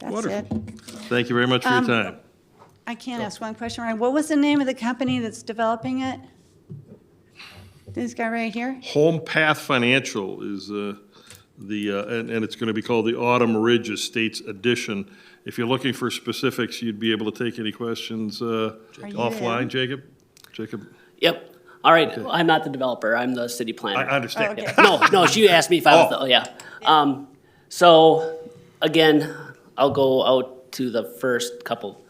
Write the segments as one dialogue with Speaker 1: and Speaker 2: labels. Speaker 1: That's it.
Speaker 2: Wonderful. Thank you very much for your time.
Speaker 1: I can't ask one question, right? What was the name of the company that's developing it? This guy right here?
Speaker 2: Home Path Financial is uh, the, uh, and and it's going to be called the Autumn Ridge Estates Edition. If you're looking for specifics, you'd be able to take any questions uh,
Speaker 1: Are you
Speaker 2: offline,
Speaker 1: in?
Speaker 2: Jacob? Jacob,
Speaker 3: Yep. All right. I'm not the developer. I'm the city
Speaker 2: I
Speaker 3: planner.
Speaker 2: I understand.
Speaker 1: Oh, Okay.
Speaker 3: no, no. She asked me if I was. The,
Speaker 2: Oh.
Speaker 3: oh, yeah. Um, so again, I'll go out to the first couple.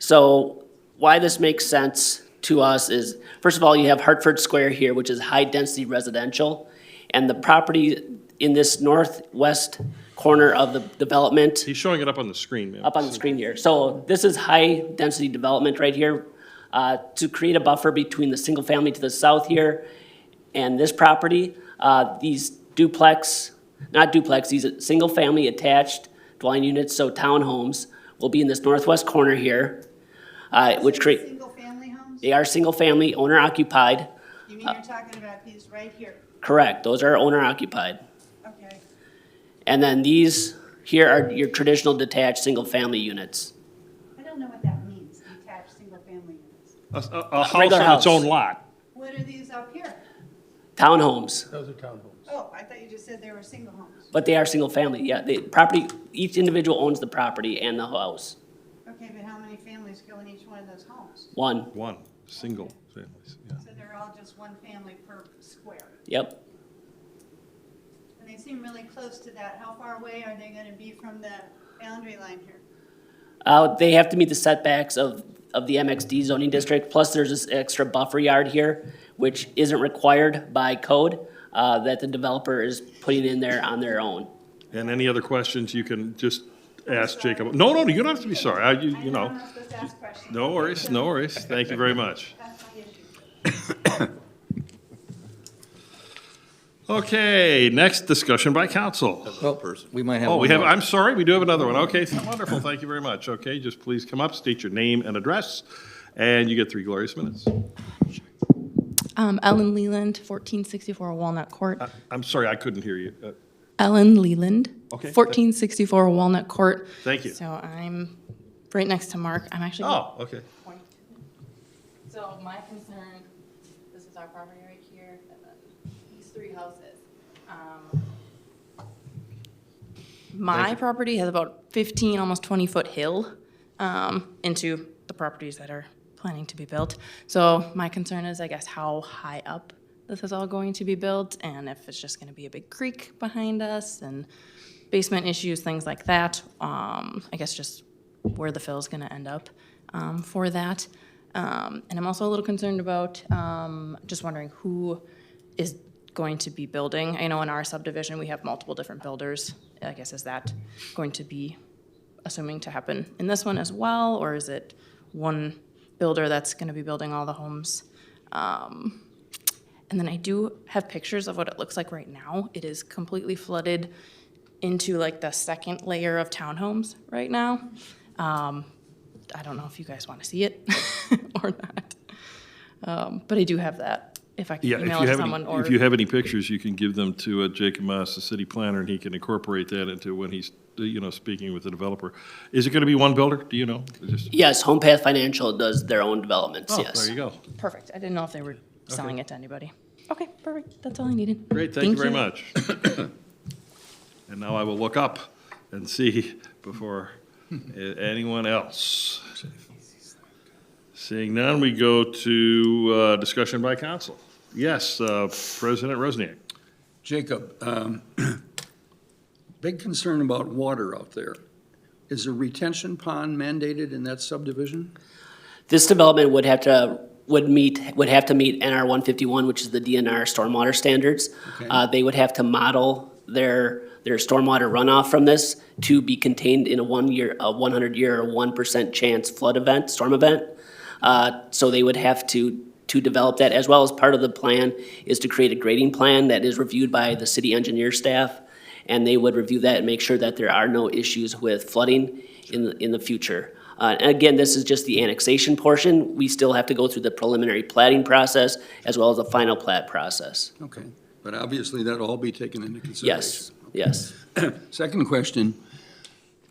Speaker 3: So why this makes sense to us is first of all, you have Hartford Square here, which is high density residential, and the property in this northwest corner of the development
Speaker 2: He's showing it up on the screen, ma'am.
Speaker 3: up on the screen here. So this is high-density development right here, uh, to create a buffer between the single-family to the south here and this property. Uh, These duplex, not duplex, these are single-family attached dwelling units, so townhomes, will be in this northwest corner here, uh, which create,
Speaker 1: Single-family homes?
Speaker 3: they are single-family, owner-occupied.
Speaker 1: You mean you're talking about these right here?
Speaker 3: Correct, those are owner-occupied.
Speaker 1: Okay.
Speaker 3: And then these here are your traditional detached, single-family units.
Speaker 1: I don't know what that means, detached, single-family units.
Speaker 2: A- A a house
Speaker 3: Regular
Speaker 2: on its
Speaker 3: house.
Speaker 2: own lot.
Speaker 1: What are these up here?
Speaker 3: Townhomes.
Speaker 4: Those are townhomes.
Speaker 1: Oh, I thought you just said they were single homes.
Speaker 3: But they are single-family, yeah, the property, each individual owns the property and the house,
Speaker 1: Okay, but how many families go in each one of those homes?
Speaker 3: one,
Speaker 2: One, single families, yeah.
Speaker 1: So they're all just one family per square.
Speaker 3: yep.
Speaker 1: And they seem really close to that. How far away are they gonna be from the boundary line here?
Speaker 3: Uh, they have to meet the setbacks of, of the MXD zoning district, plus there's this extra buffer yard here, which isn't required by code, uh, that the developer is putting in there on their own.
Speaker 2: And any other questions, you can just ask Jacob. No, no, you don't have to be sorry, I- you you
Speaker 1: I'm
Speaker 2: know.
Speaker 1: not supposed to ask questions.
Speaker 2: No worries, no worries. Thank you very much.
Speaker 1: That's my issue.
Speaker 2: Okay, next discussion by council.
Speaker 4: Well, we might have.
Speaker 2: Oh, we
Speaker 4: one
Speaker 2: have,
Speaker 4: more.
Speaker 2: I'm sorry, we do have another one. Okay, wonderful, thank you very much. Okay, just please come up, state your name and address, and you get three glorious minutes.
Speaker 5: Uh, Um, Ellen Leland, 1464 Walnut Court.
Speaker 2: I'm sorry, I couldn't hear you. Uh,
Speaker 5: Ellen Leland,
Speaker 2: Okay.
Speaker 5: 1464 Walnut Court.
Speaker 2: Thank you.
Speaker 5: So I'm right next to Mark. I'm actually.
Speaker 2: Oh, okay.
Speaker 5: So my concern, this is our property right here, and then these three houses. Um, My property has about 15, almost 20-foot hill um, into the properties that are planning to be built. So my concern is, I guess, how high up this is all going to be built, and if it's just going to be a big creek behind us, and basement issues, things like that. Um, I guess just where the fill's going to end up um, for that. Um, and I'm also a little concerned about um, just wondering who is going to be building. I know in our subdivision we have multiple different builders. I guess is that going to be assuming to happen in this one as well, or is it one builder that's going to be building all the homes? Um, And then I do have pictures of what it looks like right now. It is completely flooded into like the second layer of townhomes right now. Um, I don't know if you guys want to see it or not. Um, but I do have that if I can
Speaker 2: Yeah, if you
Speaker 5: email it to
Speaker 2: have
Speaker 5: someone
Speaker 2: any,
Speaker 5: or.
Speaker 2: if you have any pictures, you can give them to uh, Jacob Moss, the city planner, and he can incorporate that into when he's, uh, you know, speaking with the developer. Is it going to be one builder? Do you know? Just-
Speaker 3: Yes, Home Path Financial does their own developments,
Speaker 2: Oh,
Speaker 3: yes.
Speaker 2: there you go.
Speaker 5: Perfect. I didn't know if they were selling it to anybody. Okay, perfect. That's all I needed.
Speaker 2: Great, thank you very much. And now I will look up and see before a- anyone else. Seeing none, we go to uh, discussion by council. Yes, uh, President Rosniak.
Speaker 6: Jacob, um, big concern about water out there. Is a retention pond mandated in that subdivision?
Speaker 3: This development would have to, would meet, would have to meet NR one fifty-one, which is the DNR stormwater standards. Uh, they would have to model their, their stormwater runoff from this to be contained in a one-year, a one hundred-year or one percent chance flood event, storm event. Uh, so they would have to, to develop that, as well as part of the plan is to create a grading plan that is reviewed by the city engineer staff. And they would review that and make sure that there are no issues with flooding in, the- in the future. Uh, and again, this is just the annexation portion. We still have to go through the preliminary plating process as well as the final plat process.
Speaker 6: Okay, but obviously that'll all be taken into consideration.
Speaker 3: Yes, yes.
Speaker 6: Second question,